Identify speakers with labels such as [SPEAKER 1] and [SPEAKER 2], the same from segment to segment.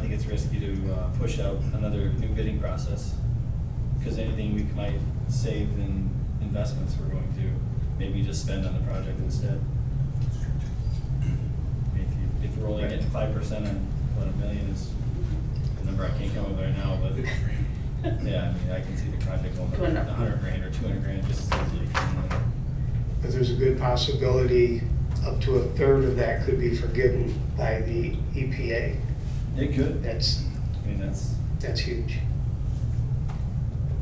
[SPEAKER 1] think it's risky to uh, push out another new bidding process. Because anything we might save in investments, we're going to maybe just spend on the project instead. If you, if we're only getting five percent on what a million is, a number I can't come up with right now, but yeah, I mean, I can see the project going for
[SPEAKER 2] Going
[SPEAKER 1] a
[SPEAKER 2] up.
[SPEAKER 1] hundred grand or two hundred grand just as easily.
[SPEAKER 3] But there's a good possibility up to a third of that could be forgiven by the EPA.
[SPEAKER 1] It could,
[SPEAKER 3] That's,
[SPEAKER 1] I mean, that's,
[SPEAKER 3] that's huge.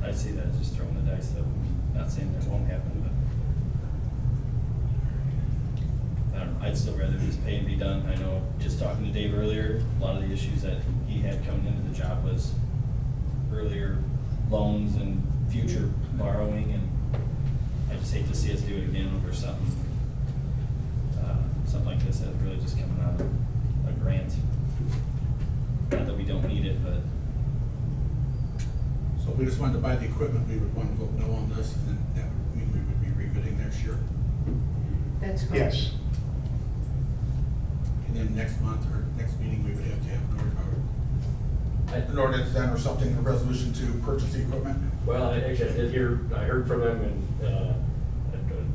[SPEAKER 1] I see that as just throwing the dice, though, not saying that won't happen, but. I don't know, I'd still rather just pay and be done, I know, just talking to Dave earlier, a lot of the issues that he had coming into the job was earlier loans and future borrowing, and I just hate to see us do it again over something, uh, something like this, that really just coming out of a grant. Not that we don't need it, but
[SPEAKER 4] So if we just wanted to buy the equipment, we would want to vote no on this, and then that would mean we would be rebidding next year.
[SPEAKER 2] That's correct.
[SPEAKER 3] Yes,
[SPEAKER 4] And then next month or next meeting, we would have to have an ord- or- an ordinance then or something, a resolution to purchase the equipment.
[SPEAKER 5] Well, I- actually, I did hear, I heard from them in, uh,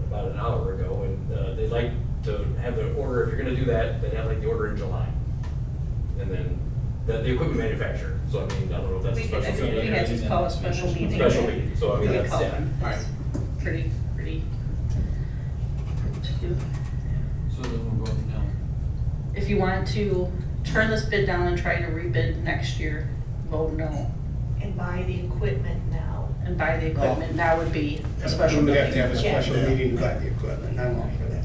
[SPEAKER 5] about an hour ago, and uh, they'd like to have the order, if you're gonna do that, they'd have like the order in July. And then, the, the equipment manufacturer, so I mean, I don't know if that's a
[SPEAKER 2] We could, I
[SPEAKER 5] special
[SPEAKER 2] think
[SPEAKER 5] meeting.
[SPEAKER 2] we had to call a special meeting.
[SPEAKER 5] Special meeting, so I mean,
[SPEAKER 2] We
[SPEAKER 5] that's-
[SPEAKER 2] call
[SPEAKER 5] yeah.
[SPEAKER 2] them.
[SPEAKER 4] All right.
[SPEAKER 2] That's Pretty, pretty.
[SPEAKER 6] So then we're voting down.
[SPEAKER 2] If you want to turn this bid down and try to rebid next year, vote no.
[SPEAKER 7] and buy the equipment now.
[SPEAKER 2] And buy the equipment, that would be a special
[SPEAKER 3] we would have to have a
[SPEAKER 2] meeting.
[SPEAKER 3] special meeting about the equipment, I'm all for that.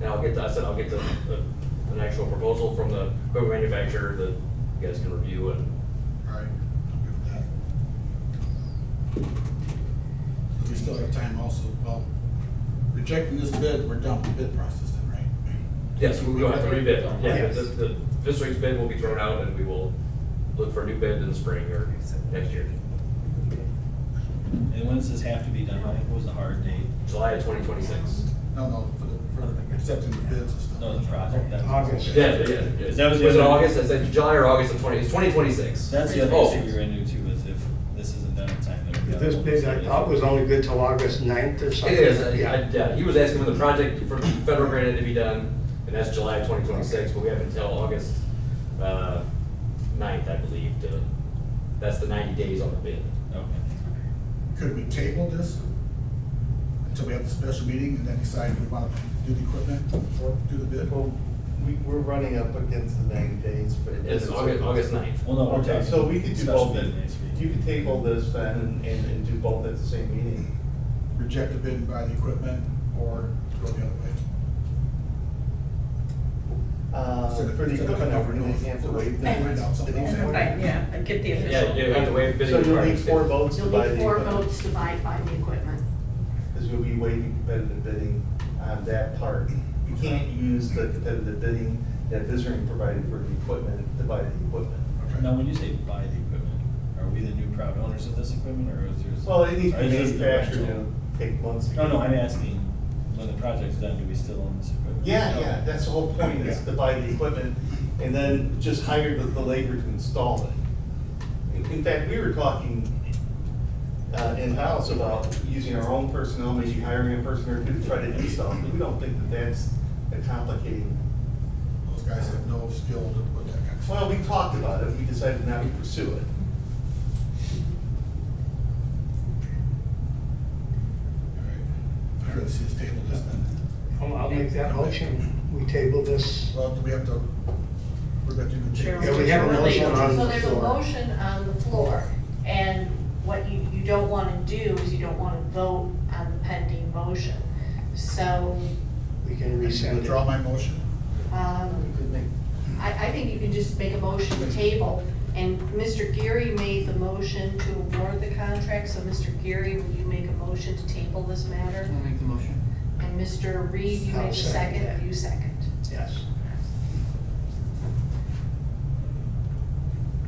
[SPEAKER 5] Now, I'll get, the- I said, I'll get the, the- an actual proposal from the equipment manufacturer that you guys can review and
[SPEAKER 4] All right. I'm good with that. We still have time also, well, rejecting this bid, we're done with the bid process then, right?
[SPEAKER 5] Yes, we will have to rebid. Yeah,
[SPEAKER 3] Yes.
[SPEAKER 5] the, the, this week's bid will be thrown out and we will look for a new bid in the spring or next year,
[SPEAKER 1] And when does this have to be done by? What was the hard date?
[SPEAKER 5] July of twenty twenty-six.
[SPEAKER 4] No, no, for the, for accepting the bids and stuff.
[SPEAKER 1] No, the project. that-
[SPEAKER 3] August.
[SPEAKER 5] Yeah, yeah,
[SPEAKER 1] Is
[SPEAKER 5] yeah.
[SPEAKER 1] that
[SPEAKER 5] Was
[SPEAKER 1] was the
[SPEAKER 5] it
[SPEAKER 1] other-
[SPEAKER 5] August? I said July or August of twenty, it's twenty twenty-six.
[SPEAKER 1] That's the other
[SPEAKER 5] Oh.
[SPEAKER 1] issue we ran into too, is if this isn't done in time. then we
[SPEAKER 3] This
[SPEAKER 1] gotta-
[SPEAKER 3] bid, I thought, was only good till August 9th or
[SPEAKER 5] It
[SPEAKER 3] something.
[SPEAKER 5] is, I, I, yeah, he was asking when the project for federal grant to be done, and that's July of twenty twenty-six, but we have until August, uh, ninth, I believe, to, that's the ninety days on the bid.
[SPEAKER 1] Okay.
[SPEAKER 4] Could we table this until we have the special meeting and then decide if we want to do the equipment or do the bid?
[SPEAKER 8] Well, we, we're running up against the ninety days for.
[SPEAKER 5] It's August, August ninth.
[SPEAKER 1] Well, no, we're
[SPEAKER 8] Okay,
[SPEAKER 1] talking
[SPEAKER 8] so we could do
[SPEAKER 1] special
[SPEAKER 8] both,
[SPEAKER 1] bid next week.
[SPEAKER 8] you could table this then and, and and do both at the same meeting.
[SPEAKER 4] Reject the bid and buy the equipment or go the other way?
[SPEAKER 8] Uh,
[SPEAKER 4] So the-
[SPEAKER 8] for the
[SPEAKER 4] so the
[SPEAKER 8] equipment,
[SPEAKER 4] cutover
[SPEAKER 8] we're gonna
[SPEAKER 4] notice
[SPEAKER 8] have to
[SPEAKER 4] for-
[SPEAKER 8] wait.
[SPEAKER 4] Then find out something else.
[SPEAKER 2] Right, yeah, and get the
[SPEAKER 5] Yeah,
[SPEAKER 2] official.
[SPEAKER 5] you have to waive bidding
[SPEAKER 8] So you'll need
[SPEAKER 5] requirements.
[SPEAKER 8] four votes to
[SPEAKER 7] You'll
[SPEAKER 8] buy the
[SPEAKER 7] need four
[SPEAKER 8] equipment,
[SPEAKER 7] votes to buy, buy the equipment.
[SPEAKER 8] because you'll be waiving competitive bidding on that part. You can't use the competitive bidding that Visory provided for the equipment to buy the equipment.
[SPEAKER 1] Now, when you say buy the equipment, are we the new proud owners of this equipment, or is there?
[SPEAKER 8] Well, it needs to
[SPEAKER 1] or
[SPEAKER 8] be
[SPEAKER 1] is this the
[SPEAKER 8] manufactured
[SPEAKER 1] rental?
[SPEAKER 8] and take months. to
[SPEAKER 1] No, no,
[SPEAKER 8] get-
[SPEAKER 1] I'm asking, when the project's done, do we still own this equipment?
[SPEAKER 8] Yeah, yeah, that's the whole point, is to buy the equipment and then just hire the, the labor to install it. In- In fact, we were talking uh, in-house about using our own personnel, maybe hiring a person or two to try to install it. We don't think that that's a complicated,
[SPEAKER 4] Those guys have no skill to put that kind of stuff.
[SPEAKER 8] well, we talked about it, we decided not to pursue it.
[SPEAKER 4] I'd rather see us table this then.
[SPEAKER 3] I'll I'll make that motion. We table this.
[SPEAKER 4] Well, do we have to, we're going to do the
[SPEAKER 2] Sure.
[SPEAKER 4] table.
[SPEAKER 3] Yeah, we have a motion on
[SPEAKER 7] So
[SPEAKER 3] the
[SPEAKER 7] there's a
[SPEAKER 3] floor.
[SPEAKER 7] motion on the floor, and what you, you don't wanna do is you don't wanna vote on the pending motion. So,
[SPEAKER 3] We can resend
[SPEAKER 4] Withdraw
[SPEAKER 3] it.
[SPEAKER 4] my motion.
[SPEAKER 7] um, I, I think you can just make a motion to table, and Mr. Geary made the motion to award the contract, so Mr. Geary, will you make a motion to table this matter?
[SPEAKER 6] I'll make the motion.
[SPEAKER 7] And Mr. Reed, you
[SPEAKER 3] I'll
[SPEAKER 7] made the
[SPEAKER 3] second that.
[SPEAKER 7] second, you second.
[SPEAKER 3] Yes.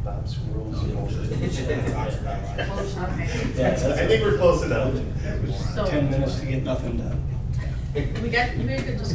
[SPEAKER 8] Bob's rules.
[SPEAKER 7] Okay.
[SPEAKER 1] Yeah, that's-
[SPEAKER 8] I think we're close enough.
[SPEAKER 2] So,
[SPEAKER 1] minutes to get nothing done.
[SPEAKER 2] we got, we could just